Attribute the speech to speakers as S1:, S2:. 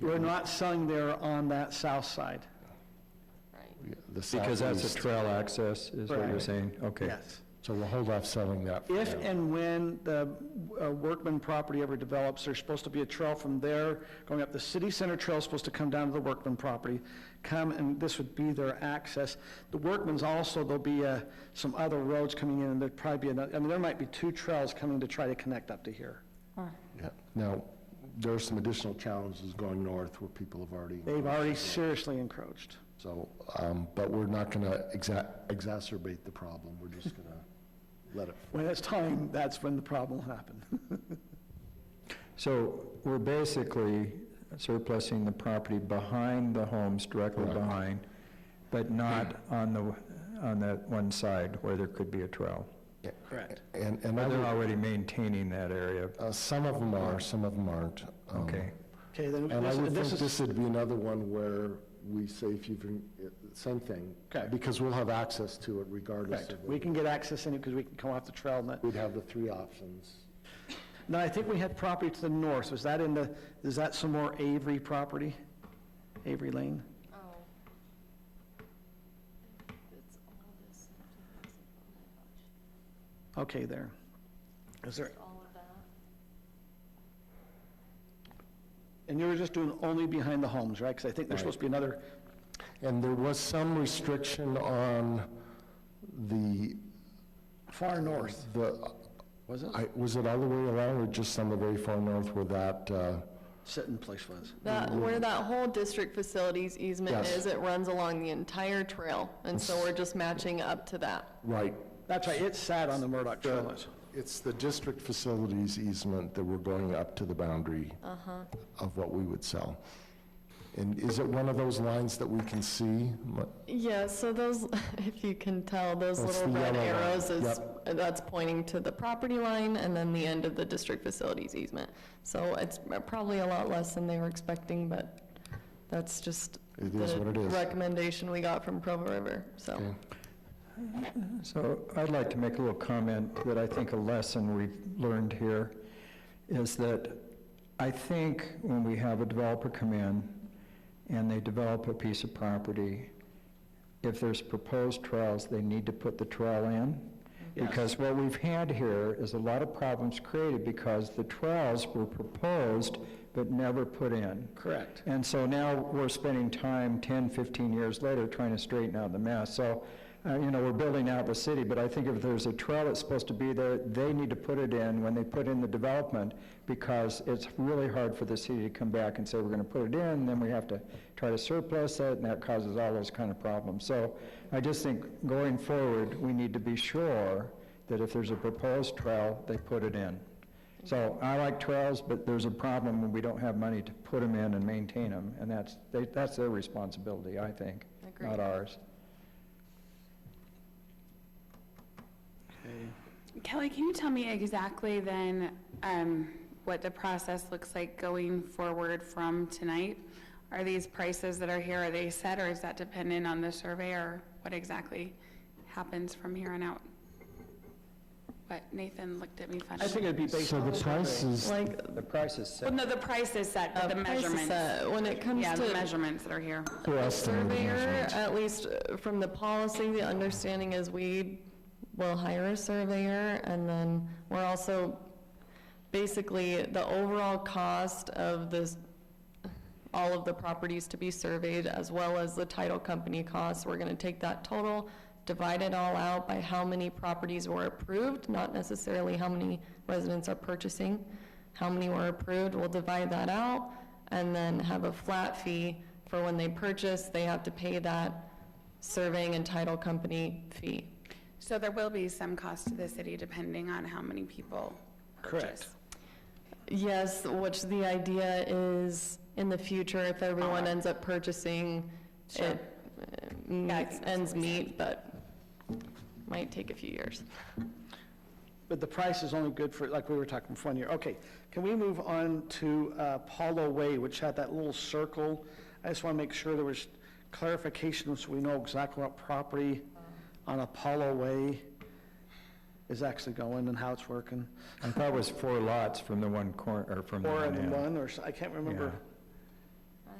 S1: You're not selling there on that south side.
S2: right?
S3: the
S4: Because that's a
S3: southeast.
S4: trail access, is what you're
S1: Correct.
S4: saying? Okay.
S1: Yes.
S3: So we'll hold off selling that. for
S1: If
S3: now.
S1: and when the uh, Workman property ever develops, there's supposed to be a trail from there going up. The city center trail is supposed to come down to the Workman property, come, and this would be their access. The Workman's also, there'll be uh, some other roads coming in, and there'd probably be, another- I mean, there might be two trails coming to try to connect up to here.
S3: Yeah. Now, there are some additional challenges going north where people have already,
S1: They've already seriously encroached.
S3: so, um, but we're not going to exacerbate the problem. We're just going to let it
S1: When it's time, that's when the problem will happen.
S4: So we're basically surplusing the property behind the homes, directly
S3: Correct.
S4: behind, but not on the, on that one side where there could be a trail.
S1: Correct.
S3: And, and I
S4: But they're
S3: would-
S4: already maintaining that area.
S3: uh, some of them are, some of them aren't. Um,
S4: Okay.
S1: Okay, then
S3: And I would
S1: this
S3: think
S1: this is,
S3: this would be another one where we say if you've, been- it- same thing.
S1: Okay.
S3: Because we'll have access to it regardless
S1: correct.
S3: of,
S1: We
S3: whether-
S1: can get access in it because we can come off the trail and that.
S3: we'd have the three options.
S1: Now, I think we had property to the north, was that in the, is that some more Avery property? Avery Lane?
S2: Oh. It's all this, oh
S1: Okay, there. Is
S2: my
S1: there,
S2: gosh, all of that.
S1: and you were just doing only behind the homes, right? Because I think there's supposed to be another,
S3: And there was some restriction on the. Far north. The. Was it? I, was it all the way around or just on the very far north where that, uh,
S1: sitting place was.
S2: That, where that whole district facilities easement
S3: Mm-hmm. Yes.
S2: is, it runs along the entire trail, and so we're just matching up to that.
S3: right?
S1: That's right, it sat on the Murdoch Trail.
S3: It's the district facilities easement that we're going up to the boundary
S1: Uh-huh.
S3: of what we would sell. And is it one of those lines that we can see?
S2: Yeah, so those, if you can tell, those
S3: That's
S2: little
S3: the
S2: red
S3: yellow line,
S2: arrows is, that's pointing to the property line and then the end of the district facilities easement. So it's probably a lot less than they were expecting, but that's just
S3: It is
S2: the
S3: what it is.
S2: recommendation we got from Provo River, so.
S3: Okay.
S4: So I'd like to make a little comment that I think a lesson we've learned here is that I think when we have a developer come in and they develop a piece of property, if there's proposed trails, they need to put the trail in.
S1: Yes.
S4: Because what we've had here is a lot of problems created because the trails were proposed but never put in.
S1: Correct.
S4: And so now we're spending time 10, 15 years later trying to straighten out the mess. So, uh, you know, we're building out the city, but I think if there's a trail that's supposed to be there, they need to put it in when they put in the development because it's really hard for the city to come back and say, we're going to put it in, and then we have to try to surplus it, and that causes all those kind of problems. So I just think going forward, we need to be sure that if there's a proposed trail, they put it in. So I like trails, but there's a problem when we don't have money to put them in and maintain them, and that's, they- that's their responsibility, I think, not
S2: Agreed.
S4: ours.
S5: Kelly, can you tell me exactly then um, what the process looks like going forward from tonight? Are these prices that are here, are they set, or is that dependent on the survey, or what exactly happens from here on out? But Nathan looked at me funny.
S1: I think it'd be based
S3: So
S1: on
S3: the
S1: the
S3: price
S1: survey.
S3: is,
S2: Like,
S4: The price is set.
S5: Well, no, the price is set, but
S2: uh,
S5: the
S2: price is
S5: measurements.
S2: set. when it comes
S5: Yeah, the
S2: to
S5: measurements that are here.
S3: we're estimating
S2: surveyor,
S3: measurements.
S2: at least uh, from the policy, the understanding is we will hire a surveyor, and then we're also, basically, the overall cost of this, all of the properties to be surveyed, as well as the title company costs, we're gonna take that total, divide it all out by how many properties were approved, not necessarily how many residents are purchasing, how many were approved, we'll divide that out, and then have a flat fee for when they purchase, they have to pay that surveying and title company fee.
S5: So there will be some cost to the city depending on how many people purchase.
S1: Correct.
S2: Yes, which the idea is, in the future, if everyone ends up purchasing,
S5: Sure.
S2: it uh, meets-
S5: that's what
S2: ends
S5: we said.
S2: meet, but might take a few years.
S1: But the price is only good for, like we were talking, for one year. Okay, can we move on to uh, Paulo Way, which had that little circle? I just want to make sure there was clarification so we know exactly what property on Apollo Way is actually going and how it's working.
S4: I thought it was four lots from the one corner, or from the
S1: Or
S4: one
S1: in
S4: end.
S1: one, or, s- I can't remember.
S4: Yeah.